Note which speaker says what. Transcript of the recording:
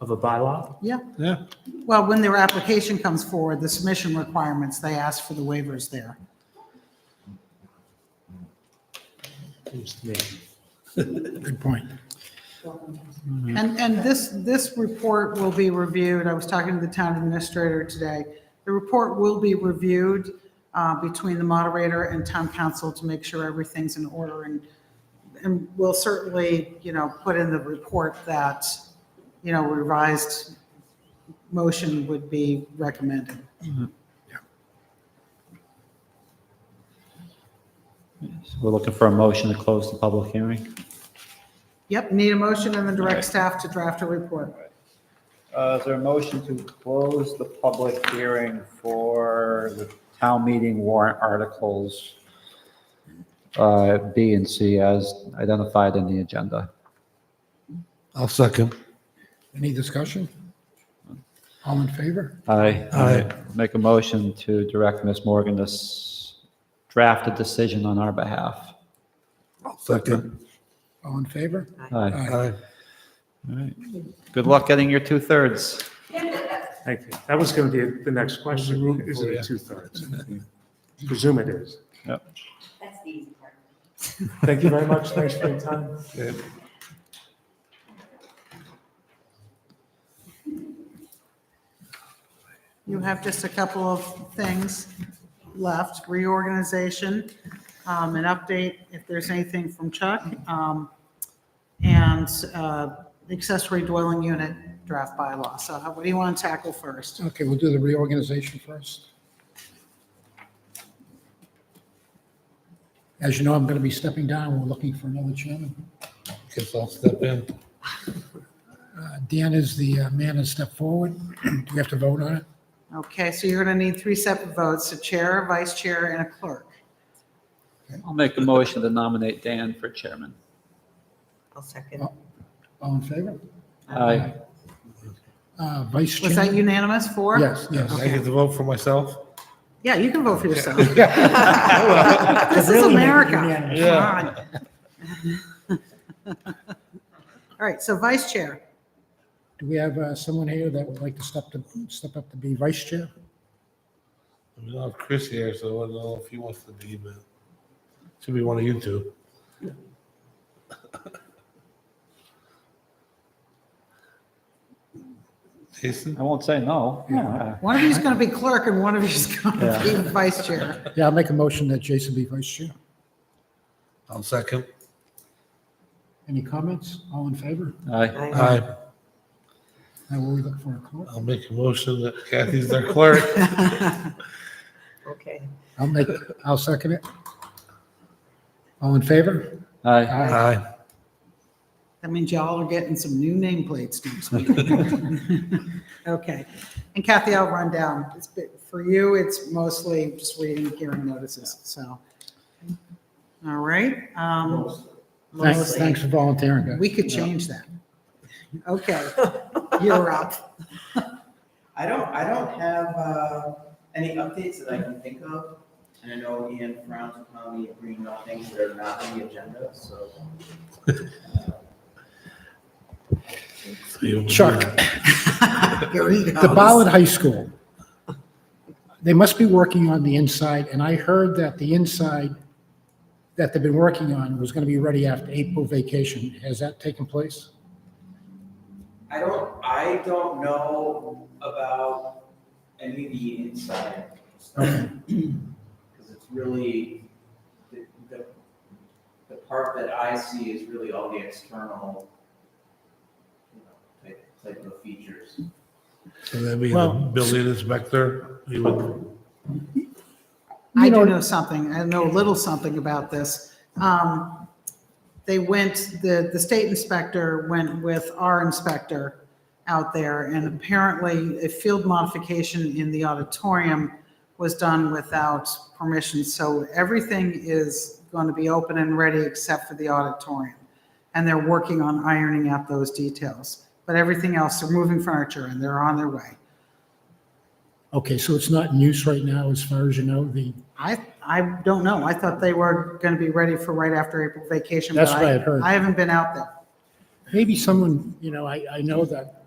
Speaker 1: of a bylaw?
Speaker 2: Yeah.
Speaker 3: Yeah,
Speaker 2: Well, when their application comes forward, the submission requirements, they ask for the waivers there.
Speaker 1: Seems to me.
Speaker 3: good point.
Speaker 2: And, and this, this report will be reviewed, I was talking to the town administrator today. The report will be reviewed uh, between the moderator and town council to make sure everything's in order. And, and we'll certainly, you know, put in the report that, you know, revised motion would be recommended.
Speaker 4: So We're looking for a motion to close the public hearing.
Speaker 2: Yep, need a motion and then direct staff to draft a report.
Speaker 4: Uh, Is there a motion to close the public hearing for the town meeting warrant articles uh, B and C as identified in the agenda?
Speaker 3: I'll second. Any discussion? All in favor?
Speaker 4: Aye.
Speaker 3: Aye.
Speaker 4: Make a motion to direct Ms. Morgan to s- draft a decision on our behalf.
Speaker 3: I'll second. All in favor?
Speaker 4: Aye. Good luck getting your two-thirds.
Speaker 1: Thank you. That was going to be the next question. Is
Speaker 3: for
Speaker 1: it
Speaker 3: ya.
Speaker 1: a two-thirds? Presume it is.
Speaker 4: Yep.
Speaker 5: That's the easy part.
Speaker 1: Thank you very much. Thanks for your time.
Speaker 2: You have just a couple of things left, reorganization, um, an update, if there's anything from Chuck, um, and uh, accessory dwelling unit draft bylaw. So how- what do you want to tackle first?
Speaker 3: Okay, we'll do the reorganization first. As you know, I'm going to be stepping down. We're looking for another chairman. Guess I'll step in. Dan is the uh, man that stepped forward. Do we have to vote on it?
Speaker 2: Okay, so you're going to need three separate votes, a chair, vice chair, and a clerk.
Speaker 4: I'll make a motion to nominate Dan for chairman.
Speaker 5: I'll second.
Speaker 3: All in favor?
Speaker 4: Aye.
Speaker 3: Uh, Vice
Speaker 2: Was that
Speaker 3: chairman?
Speaker 2: unanimous for?
Speaker 3: Yes, yes.
Speaker 6: I get to vote for myself?
Speaker 2: Yeah, you can vote for yourself. This is America. Come on. All right, so vice chair.
Speaker 3: Do we have uh, someone here that would like to step to, step up to be vice chair?
Speaker 6: We don't have Chris here, so I don't know if he wants to be, but should be one of you two. Jason?
Speaker 4: I won't say no. Yeah.
Speaker 2: One of you's going to be clerk and one of you's going to be vice chair.
Speaker 3: Yeah, I'll make a motion that Jason be vice chair.
Speaker 6: I'll second.
Speaker 3: Any comments? All in favor?
Speaker 4: Aye.
Speaker 6: Aye.
Speaker 3: Now, will we look for a clerk?
Speaker 6: I'll make a motion that Kathy's their clerk.
Speaker 5: Okay.
Speaker 3: I'll make, I'll second it. All in favor?
Speaker 4: Aye.
Speaker 6: Aye.
Speaker 2: That means y'all are getting some new nameplates next week. Okay. And Kathy, I'll run down. It's been- For you, it's mostly just reading hearing notices, so. All right. um,
Speaker 3: Thanks, thanks for volunteering, guys.
Speaker 2: We could change that. Okay, you're up.
Speaker 7: I don't, I don't have, uh, any updates that I can think of. And I know Ian frowns upon me bringing up things that are not on the agenda, so.
Speaker 6: So you-
Speaker 3: Chuck,
Speaker 2: Here he goes.
Speaker 3: the Ballard High School, they must be working on the inside, and I heard that the inside that they've been working on was going to be ready after April vacation. Has that taken place?
Speaker 7: I don't, I don't know about any of the inside stuff. Cause it's really, the, the, the part that I see is really all the external, you know, type, type of features.
Speaker 6: So that'd be the
Speaker 3: Well-
Speaker 6: building inspector, he would,
Speaker 2: I do
Speaker 3: You know-
Speaker 2: know something, I know a little something about this. Um, They went, the, the state inspector went with our inspector out there, and apparently a field modification in the auditorium was done without permission, so everything is going to be open and ready except for the auditorium. And they're working on ironing out those details, but everything else, they're moving furniture and they're on their way.
Speaker 3: Okay, so it's not in use right now, as far as you know, the,
Speaker 2: I, I don't know. I thought they were going to be ready for right after April vacation. but
Speaker 3: That's what
Speaker 2: I-
Speaker 3: I had heard.
Speaker 2: I haven't been out there.
Speaker 3: maybe someone, you know, I, I know that